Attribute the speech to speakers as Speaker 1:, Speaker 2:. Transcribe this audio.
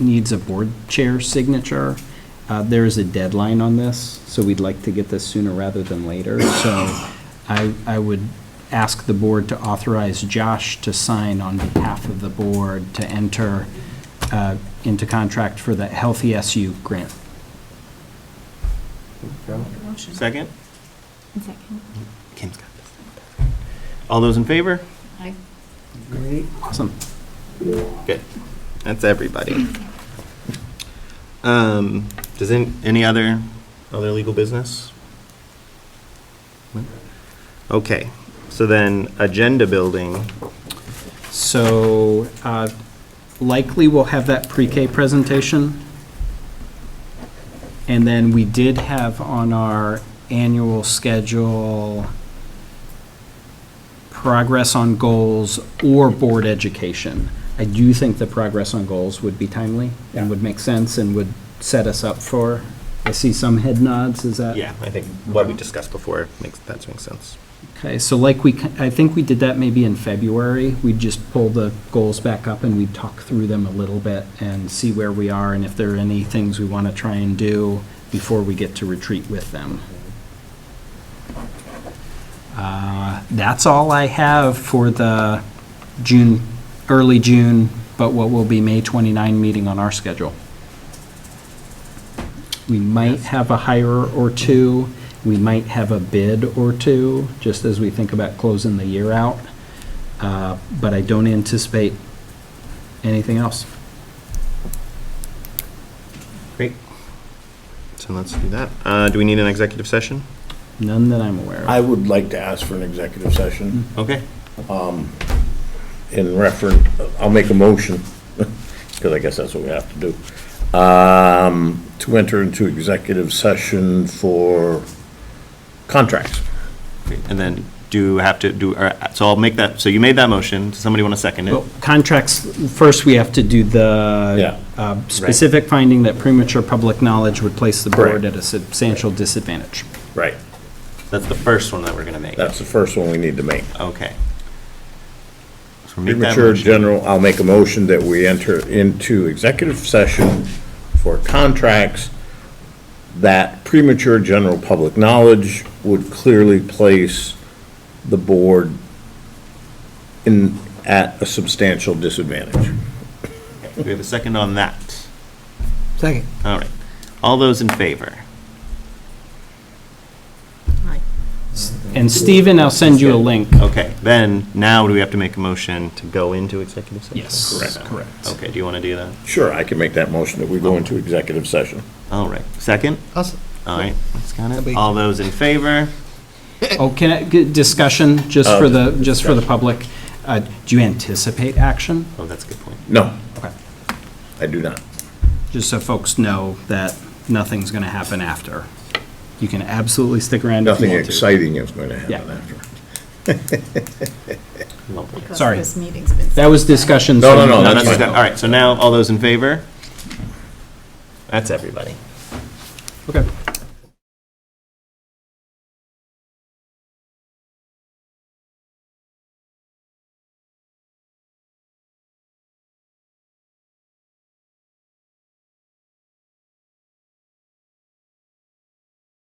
Speaker 1: needs a board chair signature. Uh, There is a deadline on this, so we'd like to get this sooner rather than later. So I, I would ask the board to authorize Josh to sign on behalf of the board to enter uh, into contract for the Healthy SU grant.
Speaker 2: Motion.
Speaker 3: Second?
Speaker 2: Second.
Speaker 3: Kim's got this. All those in favor?
Speaker 2: Aye.
Speaker 1: Awesome.
Speaker 3: Good. That's everybody. Um, does any, any other, other legal business? No? Okay, so then agenda building,
Speaker 1: So uh, likely we'll have that pre-K presentation. And then we did have on our annual schedule progress on goals or board education. I do think the progress on goals would be timely and would make sense and would set us up for, I see some head nods, is that?
Speaker 3: yeah, I think what we discussed before makes, that makes sense.
Speaker 1: Okay, so like we, ki- I think we did that maybe in February. We'd just pull the goals back up and we'd talk through them a little bit and see where we are and if there are any things we want to try and do before we get to retreat with them. Uh, That's all I have for the June, early June, but what will be May 29 meeting on our schedule. We might have a hire or two, we might have a bid or two, just as we think about closing the year out. Uh, But I don't anticipate anything else.
Speaker 3: Great. So let's do that. Uh, do we need an executive session?
Speaker 1: None that I'm aware
Speaker 4: I
Speaker 1: of.
Speaker 4: would like to ask for an executive session
Speaker 3: Okay.
Speaker 4: in reference, I'll make a motion, because I guess that's what we have to do, um, to enter into executive session for contracts.
Speaker 3: And then do have to do, all right, so I'll make that, so you made that motion. Does somebody want to second it?
Speaker 1: Well, Contracts, first we have to do the
Speaker 4: Yeah.
Speaker 1: uh, specific finding that premature public knowledge would place the board
Speaker 4: Correct.
Speaker 1: at a substantial disadvantage.
Speaker 4: Right.
Speaker 3: That's the first one that we're going to make.
Speaker 4: That's the first one we need to make.
Speaker 3: Okay. So make that
Speaker 4: Premature
Speaker 3: motion.
Speaker 4: general, I'll make a motion that we enter into executive session for contracts that premature general public knowledge would clearly place the board in, at a substantial disadvantage.
Speaker 3: Do we have a second on that?
Speaker 5: Second.
Speaker 3: All right. All those in favor?
Speaker 1: And Stephen, I'll send you a link.
Speaker 3: Okay, then, now do we have to make a motion to go into executive session?
Speaker 1: Yes. Correct. Correct.
Speaker 3: Okay, do you want to do that?
Speaker 4: Sure, I can make that motion that we go into executive session.
Speaker 3: All right. Second?
Speaker 5: Awesome.
Speaker 3: All right, that's got
Speaker 5: That'll
Speaker 3: it.
Speaker 5: be-
Speaker 3: All those in favor?
Speaker 1: Oh, can I, get discussion, just
Speaker 4: Oh,
Speaker 1: for the, just for the public, Uh, do you anticipate action?
Speaker 3: Oh, that's a good point.
Speaker 4: No,
Speaker 1: Okay.
Speaker 4: I do not.
Speaker 1: just so folks know that nothing's going to happen after. You can absolutely stick around if you
Speaker 4: Nothing
Speaker 1: want to.
Speaker 4: exciting is going to happen
Speaker 1: Yeah.
Speaker 4: after.
Speaker 3: Lovely.
Speaker 2: Because
Speaker 1: Sorry.
Speaker 2: This meeting's been.
Speaker 1: That was discussion.
Speaker 4: No, no,
Speaker 1: so-
Speaker 4: no,
Speaker 3: No,
Speaker 4: Oh, that's
Speaker 3: that's
Speaker 4: fine.
Speaker 3: good. All right, so now, all those in favor? That's everybody.
Speaker 1: Okay.